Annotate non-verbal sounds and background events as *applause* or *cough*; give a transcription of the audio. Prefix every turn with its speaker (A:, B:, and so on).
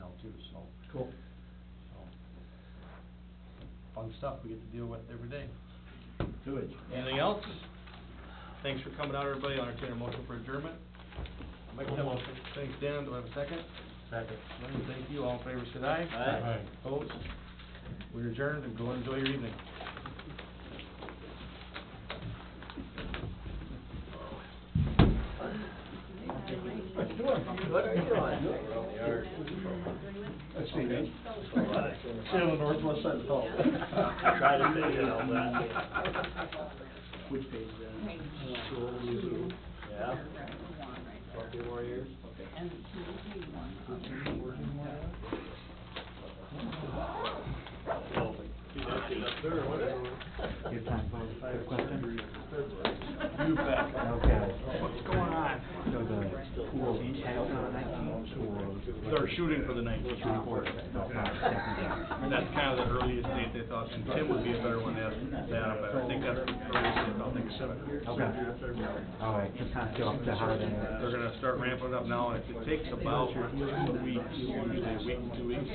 A: Cool. So, Fun stuff we get to deal with every day.
B: Good.
A: Anything else? Thanks for coming out, everybody. I'll entertain a motion for adjournment.
B: Make that motion.
A: Thanks, Dan. Do I have a second?
B: Second.
A: Lynn, thank you. All in favor, say aye.
B: Aye. Aye.
A: Opposed? We're adjourned and go enjoy your evening.
B: What are you doing? Let's see, man. Sit on the northwest side of the hall.
C: *laughs* Try to fit in all
B: that. Which page is that? Uh,
C: Yeah.
B: Your time for a question?
A: You bet.
B: Okay.
A: What's going on?
B: So the pool title for nineteen or?
A: They're shooting for the 19th.
B: Shooting for it.
A: And that's kind of the earliest date they thought, and Tim would be a better one to ask that, up, but I think that's the earliest they thought they could set it.
B: Okay. All right, just kind of go up to how
A: They're
B: they.
A: gonna start ramping it up now, and if it takes about two weeks, usually a week, two weeks,